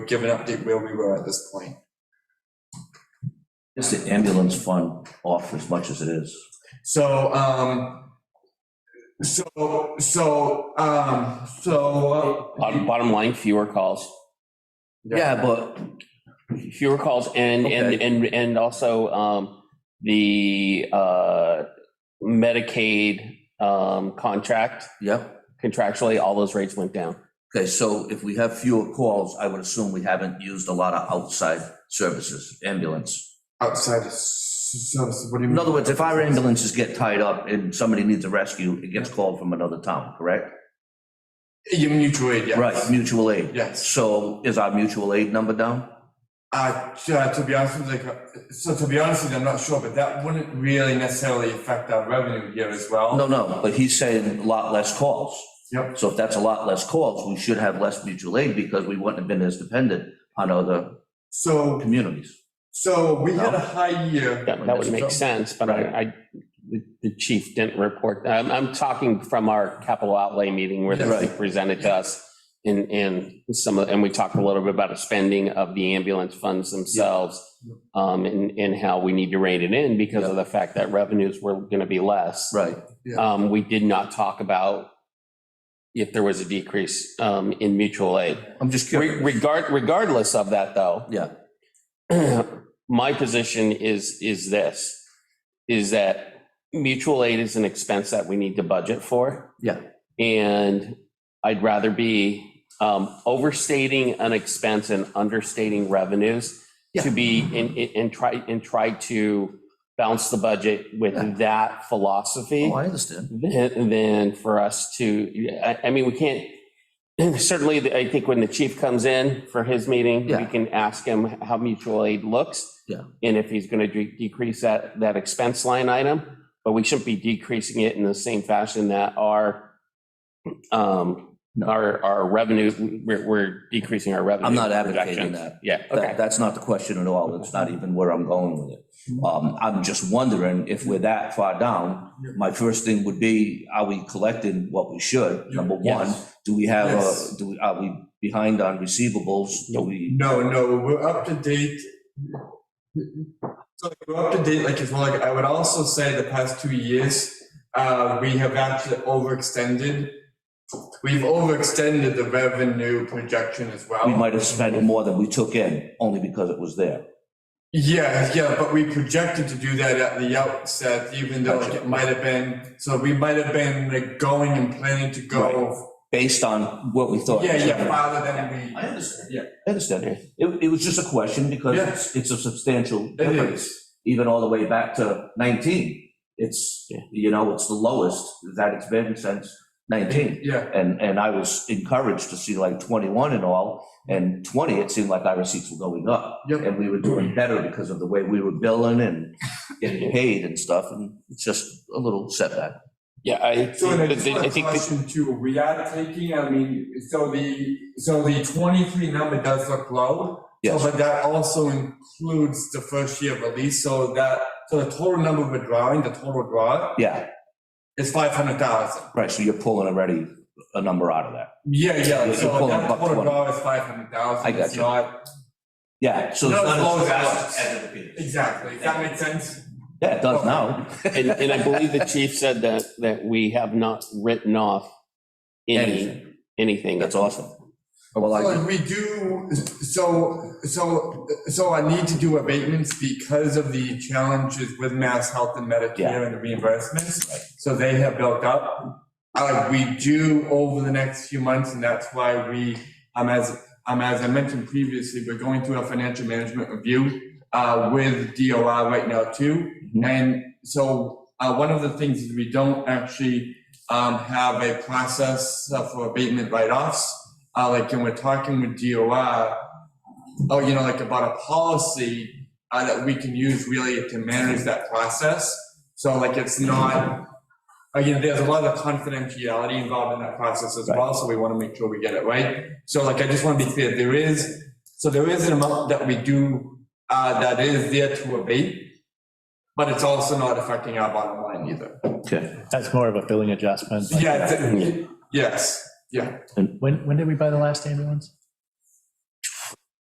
give an update where we were at this point. Is the ambulance fund off as much as it is? So, um, so, so, um, so. Bottom bottom line, fewer calls, Yeah, but, fewer calls and, and, Okay. and, and also, um, the, uh, Medicaid, um, contract yeah, contractually, all those rates went down. okay, so if we have fewer calls, I would assume we haven't used a lot of outside services, ambulance. Outside, of service, what do you mean? In other words, if our ambulances get tied up and somebody needs a rescue, it gets called from another town, correct? Your mutual aid, yes. Right, mutual aid. Yes. So is our mutual aid number down? Uh, yeah, to be honest with you, so to be honest with you, I'm not sure, but that wouldn't really necessarily affect our revenue here as well. No, no, but he's saying a lot less calls. Yep. So if that's a lot less calls, we should have less mutual aid because we wouldn't have been as dependent on other So, communities. so we had a high year. That, that would make sense, but I, I, the- the chief didn't report, I'm, I'm talking from our capital outlay meeting where they Right. presented to us. And, and some, of- and we talked a little bit about the spending of the ambulance funds themselves. Um, and, and how we need to rein it in because of the fact that revenues were gonna be less. Right. Um, we did not talk about if there was a decrease, um, in mutual aid. I'm just Re- curious. Regard, regardless of that, though. Yeah. My position is, is this, is that mutual aid is an expense that we need to budget for. Yeah. And I'd rather be um, overstating an expense and understating revenues Yeah. to be, and, and try, and try to balance the budget Yeah. with that philosophy Oh, I understand. than, than for us to, I, I mean, we can't, certainly, the- I think when the chief comes in for his meeting, Yeah. we can ask him how mutual aid looks. Yeah. And if he's going to decrease that, that expense line item, but we shouldn't be decreasing it in the same fashion that our, um, No. our, our revenue, we're, we're decreasing our revenue. I'm not advocating projections. that. Yeah, That, okay. that's not the question at all. It's not even where I'm going with Mm-hmm. it. Um, I'm just wondering if we're that far down, my first thing would be, are we collecting what we should? Number one, Yes. do we have, Yes. a? do we, are we behind on receivables? Do we, No, no, we're up to date. So like, we're up to date, like, as well, like, I would also say the past two years, uh, we have actually overextended. We've overextended the revenue projection as well. we might have spent more than we took in, only because it was there. Yeah, yeah, but we projected to do that at the outset, even though like, Gotcha. it might have been, so we might have been like going and planning to go. based on what we thought. Yeah, yeah, farther than I understand. Yeah. I understand. It, it was just a question because Yeah. it's, it's a substantial we, it difference, is. even all the way back to 19. It's, Yeah. you know, it's the lowest that it's been since 19. Yeah, And, and I was encouraged to see like 21 and all, and 20, it seemed like our receipts were going up. Yep. And we were doing better because of the way we were billing and getting paid and stuff, and it's just a little setback. Yeah, I, So and I just I want to think, that- caution too, we are taking, I mean, so the, so the twenty-three number does look low. so- Yes. But that also includes the first year release, so that, so the total number we're drawing, the total draw Yeah, is five hundred thousand. right, so you're pulling already a number out of that. Yeah, yeah, You're so pulling that buck total 20. draw is five hundred thousand. I got you. Yeah, so it's Not not as low as as fast us. as it appears. Exactly, if that makes sense? Yeah, it does now. and, and I believe the chief said that, that we have not written off any Anything. anything. That's awesome. Well, So I, like, we do, so, so, so I need to do abatements because of the challenges with Mass Health and Medicare Yeah. and the reimbursements. So they have built up. Uh, we do over the next few months, and that's why we, um, as, um, as I mentioned previously, we're going through a financial management review, uh, with DOR right now too. Mhm. And so, uh, one of the things is we don't actually, um, have a process uh, for abatement write-offs. Uh, like, and we're talking with DOR, oh, you know, like about a policy, uh, that we can use really to manage that process. So like, it's not, again, there's a lot of confidentiality involved in that process as well, so we want to make sure we get it right. So like, I just want to be clear, there is, so there is an amount that we do, uh, that is there to abate, but it's also not affecting our bottom line either. okay, That's more of a billing adjustment. like- Yeah, it's- yes, yeah. When, when did we buy the last ambulance?